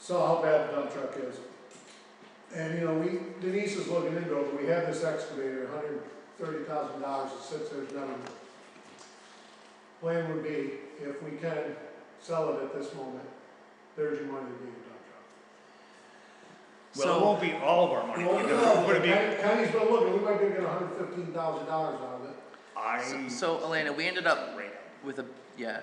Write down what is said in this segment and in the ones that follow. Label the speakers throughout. Speaker 1: saw how bad the dump truck is. And, you know, we, Denise is looking into it, but we have this excavator, hundred and thirty thousand dollars, it sits there, it's done. Plan would be, if we can sell it at this moment, there's your money to be a
Speaker 2: Well, it
Speaker 3: So,
Speaker 2: won't be all of our money.
Speaker 1: dump truck.
Speaker 2: We're gonna be,
Speaker 1: County- County's been looking, we might be getting hundred fifteen thousand dollars out of it,
Speaker 2: I.
Speaker 3: so Elena, we ended up
Speaker 2: Right.
Speaker 3: with a, yeah,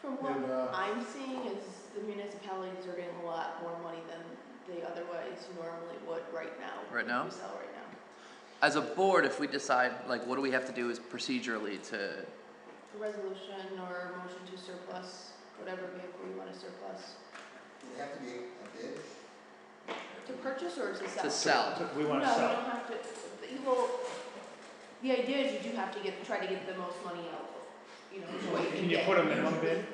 Speaker 4: From what
Speaker 1: and, uh,
Speaker 4: I'm seeing is the municipalities are getting a lot more money than they otherwise normally would right now.
Speaker 3: Right
Speaker 4: if
Speaker 3: now?
Speaker 4: We sell right now.
Speaker 3: as a board, if we decide, like, what do we have to do is procedurally to,
Speaker 4: A resolution or a motion to surplus, whatever vehicle you want to surplus,
Speaker 5: Would it have to be a bid?
Speaker 4: to purchase or to sell?
Speaker 3: to sell?
Speaker 2: We
Speaker 4: No, you
Speaker 2: wanna
Speaker 4: don't
Speaker 2: sell.
Speaker 4: have to, but you will, the idea is you do have to get, try to get the most money out, you know, which way you
Speaker 2: Can you
Speaker 4: get.
Speaker 2: put a minimum bid?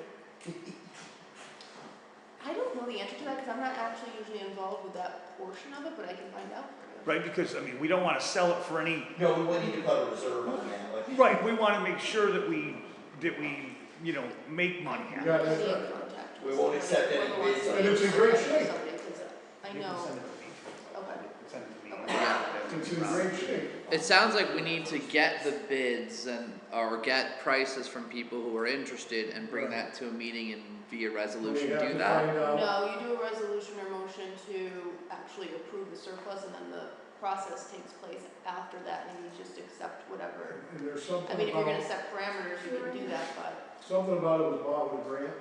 Speaker 4: I don't know the answer to that, cause I'm not actually usually involved with that portion of it, but I can find out for you.
Speaker 2: Right, because, I mean, we don't wanna sell it for any,
Speaker 5: No, we wouldn't need to put a reserve on that, like.
Speaker 2: right, we wanna make sure that we, that we, you know, make money
Speaker 1: you
Speaker 2: out of it.
Speaker 1: got
Speaker 4: Stay in
Speaker 1: it.
Speaker 4: contact
Speaker 5: We
Speaker 4: with
Speaker 5: won't
Speaker 4: somebody,
Speaker 5: accept any
Speaker 4: whether it's
Speaker 5: bids on
Speaker 4: me
Speaker 1: this. It's in
Speaker 4: or
Speaker 1: great
Speaker 4: somebody,
Speaker 1: shape.
Speaker 4: somebody, 'cause I
Speaker 2: You can
Speaker 4: know,
Speaker 2: send it to me if you want.
Speaker 4: okay,
Speaker 2: Send it to me.
Speaker 4: Okay.
Speaker 1: It's in great shape.
Speaker 3: It sounds like we need to get the bids and, or get prices from people who are interested and bring
Speaker 1: Right.
Speaker 3: that to a meeting and via
Speaker 1: We
Speaker 3: resolution
Speaker 1: have
Speaker 3: do
Speaker 1: to
Speaker 3: that.
Speaker 1: find out-
Speaker 4: no, you do a resolution or motion to actually approve the surplus, and then the process takes place after that, and you just accept whatever.
Speaker 1: And there's
Speaker 4: I
Speaker 1: something
Speaker 4: mean, if you're gonna
Speaker 1: about,
Speaker 4: set parameters, you can do that, but
Speaker 1: something about it was bought with a grant,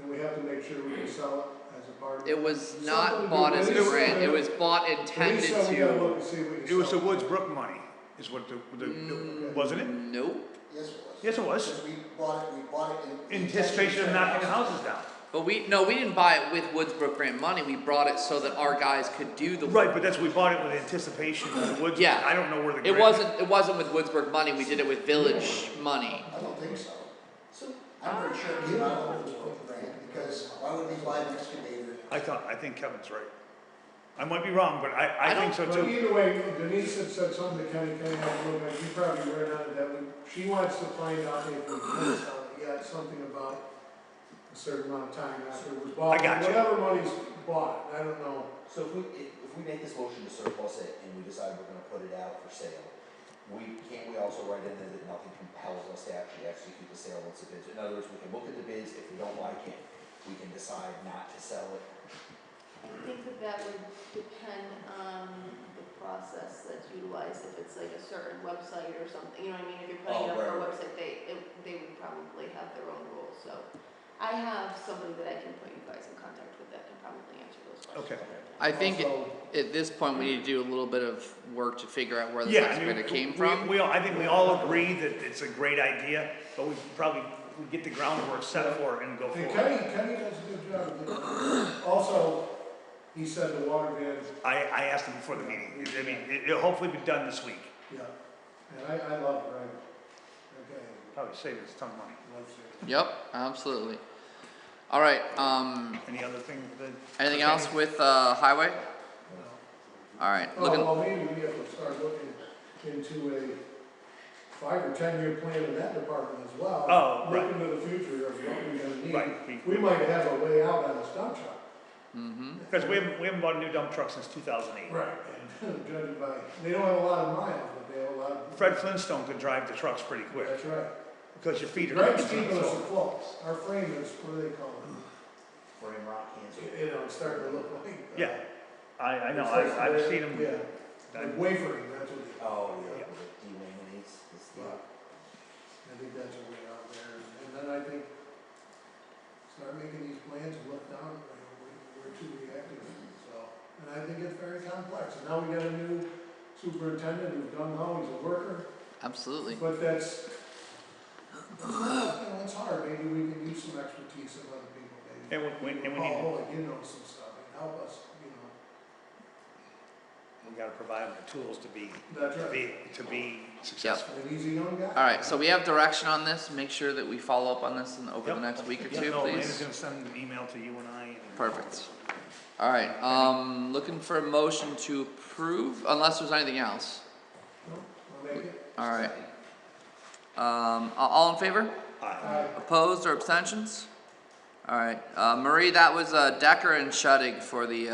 Speaker 1: and we have to make sure we can sell it as a part.
Speaker 3: It was
Speaker 1: Something
Speaker 3: not
Speaker 1: to
Speaker 3: bought
Speaker 1: do
Speaker 3: as a
Speaker 1: with-
Speaker 3: grant, it was bought
Speaker 1: Denise
Speaker 3: intended
Speaker 1: said we gotta
Speaker 3: to.
Speaker 1: look and see if we can
Speaker 2: It was the
Speaker 1: sell
Speaker 2: Woods Brook money, is what the, the,
Speaker 3: Mm,
Speaker 2: wasn't it?
Speaker 3: Nope,
Speaker 5: Yes, it was.
Speaker 2: Yes, it was,
Speaker 5: Because we bought it, we bought it in.
Speaker 2: anticipation of knocking the houses down.
Speaker 3: but we, no, we didn't buy it with Woodsbrook grant money, we brought it so that our guys could do the
Speaker 2: Right,
Speaker 3: work.
Speaker 2: but that's, we bought it with anticipation of the Woods,
Speaker 3: Yeah.
Speaker 2: I don't know where the.
Speaker 3: It
Speaker 2: grant-
Speaker 3: wasn't, it wasn't with Woodsbrook money, we did it with village money.
Speaker 5: I don't think so. I'm pretty sure it came out of the Woods Brook grant, because why would we buy an excavator?
Speaker 2: I thought, I think Kevin's right. I might be wrong, but I, I
Speaker 3: I
Speaker 2: think so
Speaker 1: But
Speaker 2: too.
Speaker 1: either way, Denise had said something to Kenny, Kenny had a little bit, you probably read on it, that we, she wants to find out if we can sell it, yeah, it's something about a certain amount of time after it was bought.
Speaker 2: I got you.
Speaker 1: Whatever money's bought, I don't know,
Speaker 5: So if we, if, if we make this motion to surplus it and we decide we're gonna put it out for sale, we, can't we also write in there that nothing compels us to actually execute the sale once the bids? In other words, we can look at the bids, if we don't like it, we can decide not to sell it.
Speaker 4: I think that that would depend on the process that's utilized, if it's like a certain website or something, you know what I mean? If you're putting it
Speaker 5: Oh,
Speaker 4: up for a
Speaker 5: right, right.
Speaker 4: website, they, it- they would probably have their own rules, so. I have somebody that I can put you guys in contact with that can probably answer those
Speaker 2: Okay.
Speaker 4: questions.
Speaker 3: I think
Speaker 1: Also-
Speaker 3: at- at this point, we need to do a little bit of work to figure out where this
Speaker 2: Yeah, I mean,
Speaker 3: excavator came
Speaker 2: we-
Speaker 3: from.
Speaker 2: We, all, I think we all agree that it's a great idea, but we probably we get the groundwork set for it and go
Speaker 1: and
Speaker 2: forward.
Speaker 1: Kenny, Kenny does a good job. of getting- Also, he said the water van,
Speaker 2: I, I asked him before the meeting, I mean, it, it'll hopefully be done this week,
Speaker 1: yeah, and I, I love Greg, okay,
Speaker 2: probably save us a ton of money.
Speaker 1: loves it.
Speaker 3: Yep, absolutely. All right, um,
Speaker 2: Any other thing that?
Speaker 3: anything else with, uh, highway? All right, looking,
Speaker 2: Uh-huh.
Speaker 1: Oh, well, maybe we have to start looking into a five or ten-year plan in that department as well.
Speaker 2: Oh, right.
Speaker 1: Look into the future of what we're gonna need.
Speaker 2: Right, we-
Speaker 1: We might have a way out on this dump truck.
Speaker 3: mm-hmm,
Speaker 2: Because we haven't, we haven't bought a new dump truck since two thousand eight.
Speaker 1: Right. And judging by, they don't have a lot of miles, but they have a lot of.
Speaker 2: Fred Flintstone could drive the trucks pretty quick,
Speaker 1: That's right.
Speaker 2: because your feet are.
Speaker 1: Greg's
Speaker 2: coming
Speaker 1: keeping
Speaker 2: to
Speaker 1: us
Speaker 2: it.
Speaker 1: afloat. Our frame is, what do they call it?
Speaker 5: Frame rock, cancel.
Speaker 1: You know, it's starting to look like. uh,
Speaker 2: Yeah, I, I know,
Speaker 1: it's
Speaker 2: I,
Speaker 1: like
Speaker 2: I've
Speaker 1: they're-
Speaker 2: seen him.
Speaker 1: Yeah,
Speaker 2: I-
Speaker 1: like wavering, that's what they.
Speaker 5: Oh,
Speaker 2: Yeah.
Speaker 5: yeah, with the delaminates, this
Speaker 1: Yeah. I think that's a way out there, and then I think, start making these plans and look down, you know, we're, we're too reactive, so. And I think it's very complex, and now we got a new superintendent who's done how, he's a worker,
Speaker 3: absolutely.
Speaker 1: but that's, you know, it's hard, maybe we can use some expertise of other people, maybe.
Speaker 2: And we, we- and we need,
Speaker 3: Oh.
Speaker 1: Paul
Speaker 2: to-
Speaker 1: Holig, you know some stuff, and help us, you know,
Speaker 2: we gotta provide them the tools to be,
Speaker 1: that's
Speaker 2: to
Speaker 1: right,
Speaker 2: be, to be successful.
Speaker 1: and he's a young guy.
Speaker 3: All right, so we have direction on this, make sure that we follow up on this in, over the
Speaker 2: Yep.
Speaker 3: next week or
Speaker 2: Yeah,
Speaker 3: two,
Speaker 2: no, Lena's
Speaker 3: please.
Speaker 2: gonna send an email to you and I. and-
Speaker 3: Perfect. All right, um, looking for a motion to approve, unless there's anything else.
Speaker 1: No, I'll make it.
Speaker 3: All right. Um, a- all in favor?
Speaker 2: Aye.
Speaker 1: Aye.
Speaker 3: Opposed or abstentions? All right, uh, Marie, that was, uh, Decker and Shuddig for the, uh,